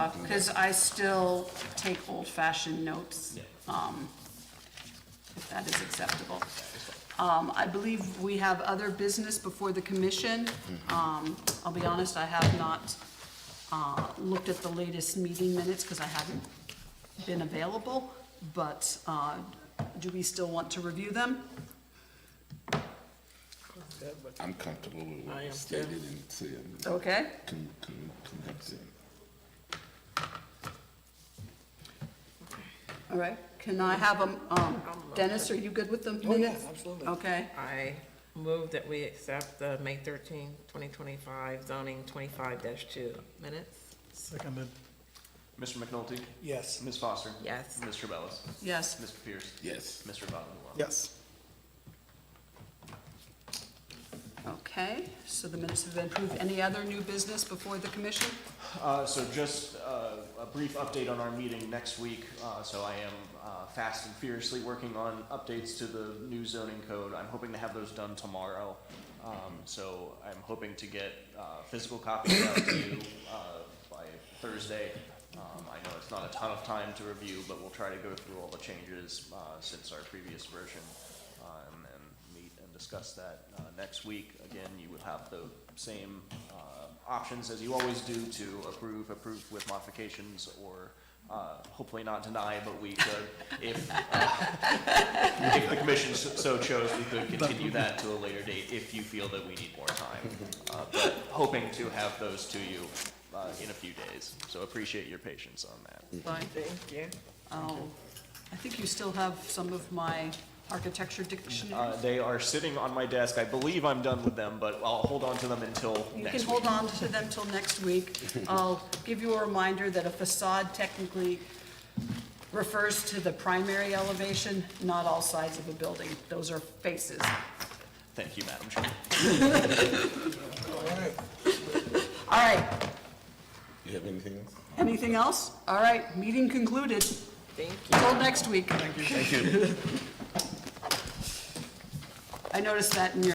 out, because I still take old-fashioned notes, um, if that is acceptable. Um, I believe we have other business before the commission. Um, I'll be honest, I have not uh, looked at the latest meeting minutes, because I haven't been available, but uh, do we still want to review them? I'm comfortable with I what am was too. stated and said. Okay. Can, can, can have said. All right, can I have them, um, Dennis, are you good with the Oh, yeah, minutes? absolutely. Okay, I move that we accept the May 13, 2025 zoning 25-2 minutes. Seconded. Mr. McNulty? Yes. Ms. Foster? Yes. Mr. Bellis? yes, Mr. Pierce? Yes, Mr. Valenzuela? Yes. okay, so the minutes have been approved. Any other new business before the commission? Uh, so just, uh, a brief update on our meeting next week. Uh, so I am, uh, fast and furiously working on updates to the new zoning code. I'm hoping to have those done tomorrow. Um, so I'm hoping to get, uh, physical copies out to you, uh, by Thursday. Um, I know it's not a ton of time to review, but we'll try to go through all the changes, uh, since our previous version. Um, and meet and discuss that, uh, next week. Again, you would have the same, uh, options as you always do to approve, approve with modifications, or uh, hopefully not deny, but we could, if, uh, if the commission s- so chose, we could continue that to a later date if you feel that we need more time. Uh, But hoping to have those to you uh, in a few days, so appreciate your patience on that. Fine. Thank you. Oh, I think you still have some of my architecture dictionary. Uh, They are sitting on my desk, I believe I'm done with them, but I'll hold on to them until You can next hold week. on to them till next week. I'll give you a reminder that a facade technically refers to the primary elevation, not all sides of a building. Those are faces. Thank you, Madam Chair. All right. All right, you have anything else? anything else? All right, meeting concluded. Thank you. Till next week. Thank you. I noticed that in your